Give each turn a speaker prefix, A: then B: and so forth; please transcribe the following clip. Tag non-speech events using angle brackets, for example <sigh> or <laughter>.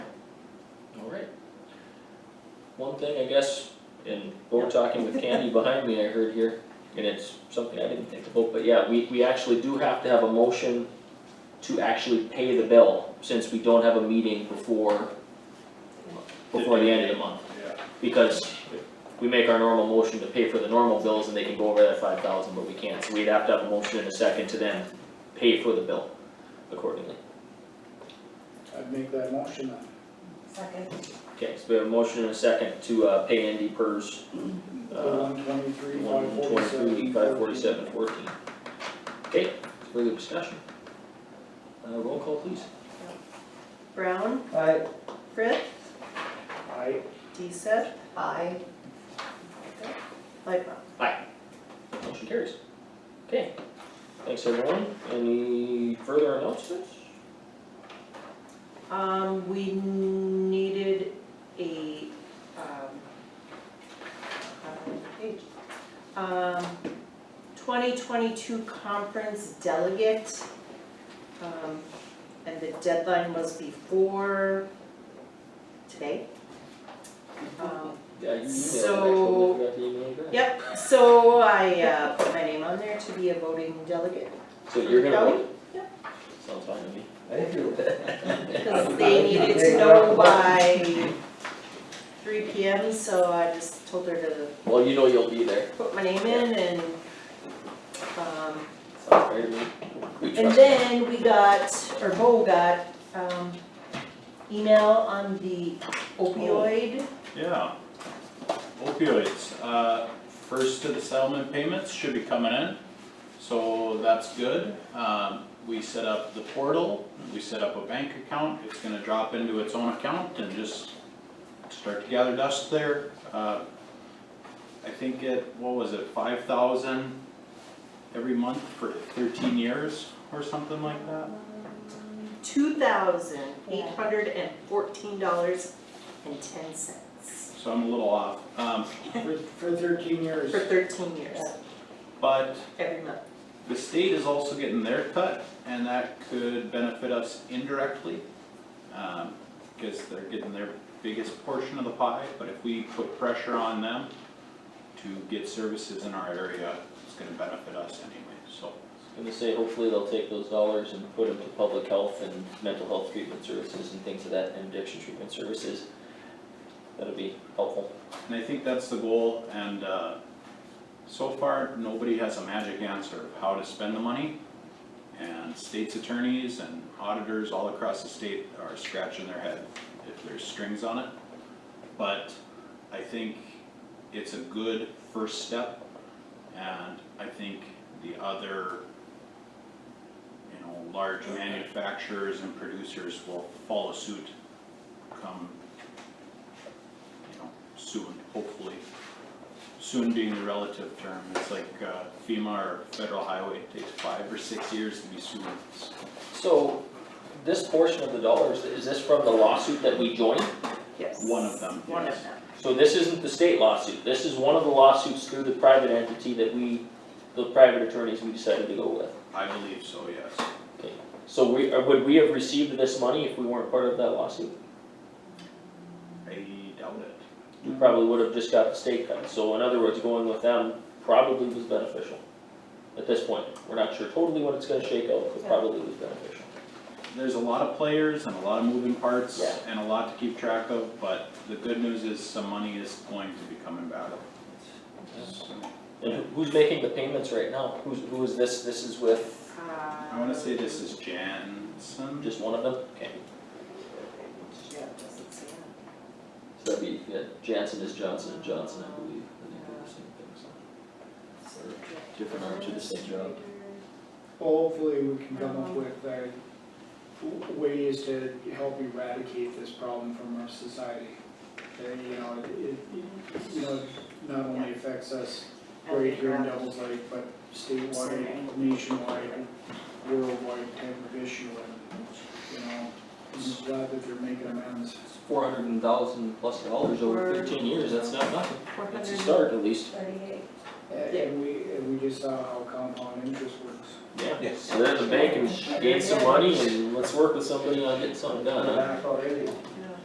A: one thing, I guess, and we're talking with Candy behind me, I heard here, and it's something I didn't think about, but yeah, we, we actually do have to have a motion to actually pay the bill, since we don't have a meeting before, before the end of the month.
B: Yeah,
A: Because we make our normal motion to pay for the normal bills, and they can go over that five thousand, but we can't, so we'd have to have a motion in a second to then pay for the bill accordingly.
B: I'd make that motion then.
C: Second.
A: Okay, so we have a motion in a second to, uh, pay Andy Purz, uh,
B: One twenty-three,
A: One
B: five forty-seven.
A: twenty-three, five forty-seven, fourteen. Okay, further discussion? Uh, roll call please.
D: Brown,
B: Aye.
D: Frith,
B: Aye.
D: Deeseth,
C: Aye.
D: Lightfoot.
A: Motion carries. Okay, thanks everyone. Any further announcements?
D: Um, we needed a, um, uh, page, um, twenty twenty-two conference delegate. Um, and the deadline was before today. Um,
A: Yeah, you emailed, it, actually, we
D: So-
A: forgot to email it back.
D: yep, so I, uh, put my name on there to be a voting delegate.
A: So you're gonna
D: Kelly?
A: vote?
D: Yeah.
A: Sounds fine to me.
E: Thank you.
D: Cause they needed to know by three P M, so I just told her to
A: <laughs> Well, you know you'll be there.
D: put my name in and, um,
A: Sounds fair to me. We
D: and
A: trust you.
D: then we got, or Bo got, um, email on the opioid.
F: Yeah. Opioids, uh, first to the settlement payments should be coming in, so that's good. Um, we set up the portal, we set up a bank account, it's gonna drop into its own account and just start to gather dust there. Uh, I think it, what was it, five thousand every month for thirteen years or something like that?
D: Two thousand eight hundred and fourteen dollars and ten cents
F: So I'm a little off, um,
B: For, for thirteen years.
D: for thirteen years,
F: but
D: every month.
F: The state is also getting their cut, and that could benefit us indirectly, um, because they're getting their biggest portion of the pie, but if we put pressure on them to get services in our area, it's gonna benefit us anyway, so.
A: I'm gonna say hopefully they'll take those dollars and put them to public health and mental health treatment services and things of that, and addiction treatment services. That'll be helpful.
F: And I think that's the goal, and, uh, so far, nobody has a magic answer of how to spend the money. And state's attorneys and auditors all across the state are scratching their head if there's strings on it. But I think it's a good first step, and I think the other, you know, large manufacturers and producers will follow suit come you know, soon, hopefully. Soon being the relative term, it's like uh, FEMA or federal highway, it takes five or six years to be soon.
A: So, this portion of the dollars, is this from the lawsuit that we joined?
D: Yes.
F: One of them,
D: One of
F: yes.
D: them.
A: So this isn't the state lawsuit, this is one of the lawsuits through the private entity that we, the private attorneys we decided to go with.
F: I believe so, yes.
A: So we, or would we have received this money if we weren't part of that lawsuit?
F: I doubt it.
A: We probably would have just got the state cut, so in other words, going with them probably was beneficial. At this point, we're not sure totally what it's gonna shake out, but probably was beneficial.
F: There's a lot of players and a lot of moving parts
A: Yeah.
F: and a lot to keep track of, but the good news is some money is going to be coming back.
A: And who- who's making the payments right now? Who's, who is this, this is with
F: I wanna say this is Jansen,
A: just one of them? Okay.
D: Yeah, it doesn't say that.
A: So that'd be, yeah, Jansen is Johnson and Johnson, I believe, I think they're the same thing, so. Different arm to the same job.
B: Hopefully, we can come up with, uh, w- ways to help eradicate this problem from our society. That, you know, it, it, you know, not only affects us right here in Devil's Lake, but statewide, nationwide, worldwide type of issue, and, you know, I'm glad that they're making amends.
A: Four hundred and thousand plus dollars over fifteen years, that's not nothing,
D: Four
A: it's
D: hundred
A: a
D: and
A: start at least.
C: Thirty-eight.
B: And and we, and we just saw how compound interest works.
A: Yeah, so there's a bank and gain some money and let's work with somebody on getting something done, huh?
E: Back already.